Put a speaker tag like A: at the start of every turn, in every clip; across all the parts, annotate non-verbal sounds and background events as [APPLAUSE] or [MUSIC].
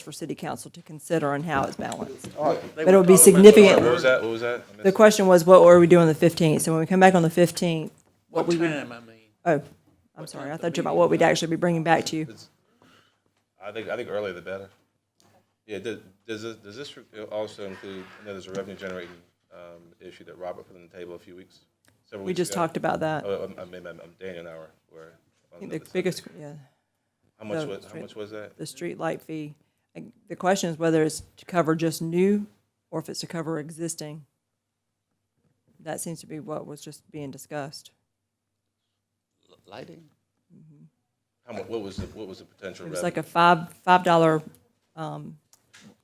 A: for city council to consider on how it's balanced.
B: But
A: it would be
B: What was
A: significant.
B: that, what was that? I
A: The
B: missed-
A: question was, what are we doing on the 15th? So when we come back on the 15th,
C: What time, I mean?
A: oh, I'm sorry, I thought you about what we'd actually be bringing back to you.
B: I think, I think earlier the better. Yeah, does, does this, does this also include, I know there's a revenue generating, um, issue that Robert put on the table a few weeks, several
A: We
B: weeks
A: just
B: ago.
A: talked about that. I
B: Oh, I'm, I'm, I'm I'm Daniel now, or- or.
A: think
B: on the
A: The
B: other side.
A: biggest, yeah,
B: How much
A: the
B: was, how
A: street-
B: much was that?
A: the street light fee. And The question is whether it's to cover just new or if it's to cover existing. That seems to be what was just being discussed.
C: Lighting?
B: How mu, what was the, what was the potential
A: It
B: revenue?
A: was like a five, five dollar, um,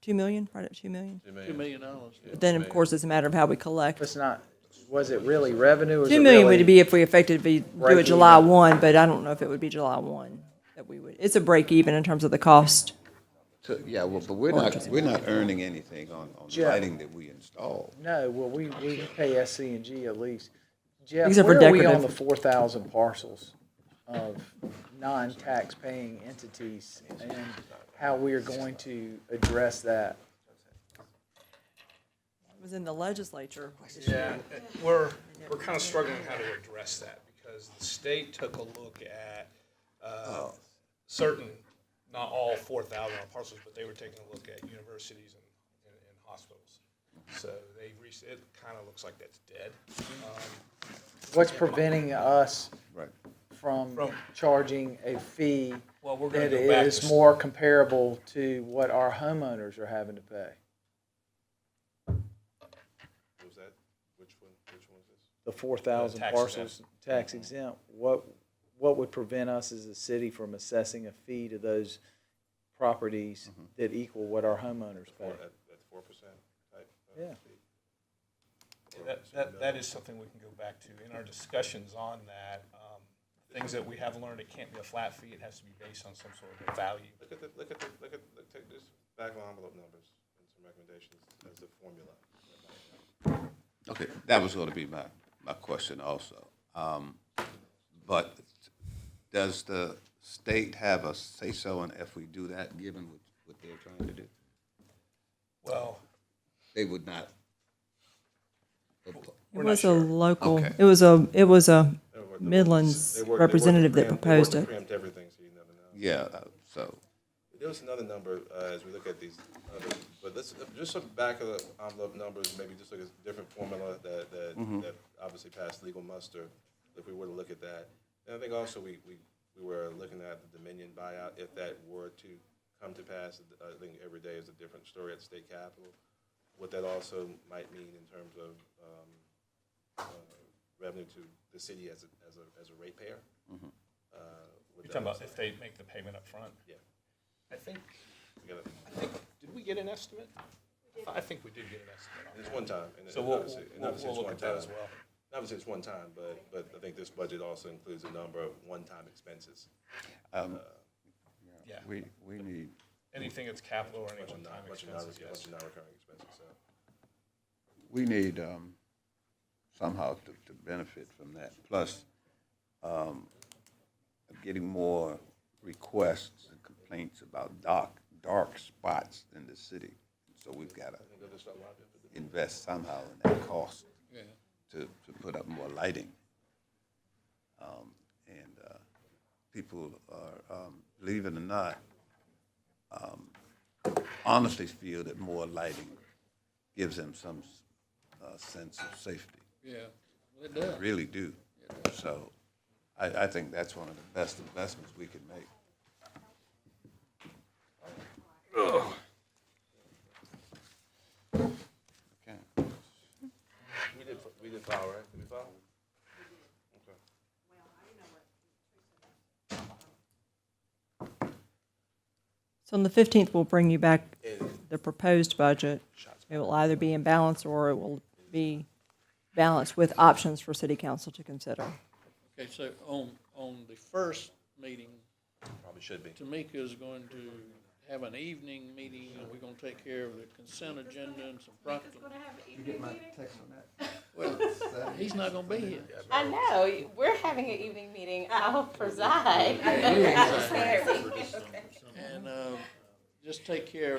A: two million, right at two million.
B: Two million.
C: Two million dollars.
A: But then, of course, it's a matter of how we collect.
D: It's not, was it really revenue? Was
A: Two
D: it
A: million
D: really-
A: would be if we effectively do it
D: Break
A: July
D: even.
A: one, but I don't know if it would be July one that we would, it's a break even in terms of the cost.
E: So, yeah, well, but we're not, we're not earning anything on, on
D: Jeff.
E: lighting that we install.
D: No, well, we, we pay SCNG at least. Jeff,
A: Except for
D: where are we on the
A: decorative.
D: four thousand parcels of non-tax paying entities and how we are going to address that?
A: It was in the legislature.
F: Yeah, we're, we're kind of struggling how to address that because the state took a look at uh, certain, not all four thousand parcels, but they were taking a look at universities and, and and hospitals. So they, reached- it kind of looks like that's dead.
D: What's preventing us
E: Right.
D: from
F: From-
D: charging a fee
F: Well, we're gonna
D: that
F: go back to
D: is
F: s-
D: more comparable to what our homeowners are having to pay?
B: Was that, which one, which one was this?
D: the four thousand
F: tax
D: parcels tax exempt, what, what would prevent us as a city from assessing a fee to those properties that equal what our homeowners pay?
B: At, at four percent type? uh,
D: Yeah.
B: fee?
F: That, that, that is something we can go back to in our discussions on that. um, Things that we have learned, it can't be a flat fee, it has to be based on some sort of value.
B: Look at the, look at the, look at, look, take this back of envelope numbers and some recommendations as the formula.
E: Okay, that was gonna be my, my question also. Um, but does the state have a say-so in if we do that, given what, what they're trying to do?
F: Well,
E: They would not.
A: It was a local,
E: Okay.
A: it was a, it was a
B: They work- they work-
A: Midlands
B: they work- they work to
A: representative that
B: preempt-
A: proposed
B: They work
A: it.
B: to preempt everything, so you never know.
E: Yeah, uh, so,
B: There was another number, uh, as we look at these others, but let's, just some back of the envelope numbers, maybe just like a different formula that, that, that obviously passed legal muster, if we were to look at that. And I think also we, we, we were looking at the Dominion buyout, if that were to come to pass, I think every day is a different story at the state capitol. What that also might mean in terms of, um, uh, revenue to the city as a, as a, as a ratepayer. Uh, with
F: you're talking
B: that-
F: about if they make the payment up front.
B: Yeah,
F: I think,
B: we gotta-
F: I think, did we get an estimate? I thought- I think we did get an estimate on
B: It's
F: that.
B: one time, and
F: So
B: and
F: we'll,
B: obviously, and
F: we'll,
B: obviously
F: we'll
B: it's
F: look
B: one
F: at that
B: time.
F: as well.
B: Obviously, it's one time, but, but I think this budget also includes a number of one-time expenses.
E: um,
F: Yeah,
E: we, we need,
F: anything that's capital or any
B: Bunch of non-
F: one-time
B: bunch of non-
F: expenses,
B: bunch
F: yes.
B: of non-recurring expenses, so.
E: we need, um, somehow to, to benefit from that. Plus, um, getting more requests and complaints about dark, dark spots in the city. So we've got to invest somehow in that cost to, to put up more lighting. Um, and, uh, people are, um, believe it or not, um, honestly feel that more lighting gives them some, uh, sense of safety.
C: Yeah.
E: I really do. So I, I think that's one of the best investments we can make. Okay.
B: We did, we did file, right? Did we file? Okay.
A: So on the 15th, we'll bring you back the proposed budget. It will either be in balance or it will be balanced with options for city council to consider.
C: Okay, so on, on the first meeting,
B: Probably should be.
C: Tamika is going to have an evening meeting, and we're gonna take care of the consent agenda and some proclamation. He's not gonna be here.
G: I know, we're having an evening [LAUGHS] meeting, I'll preside.
C: And, uh, just take care of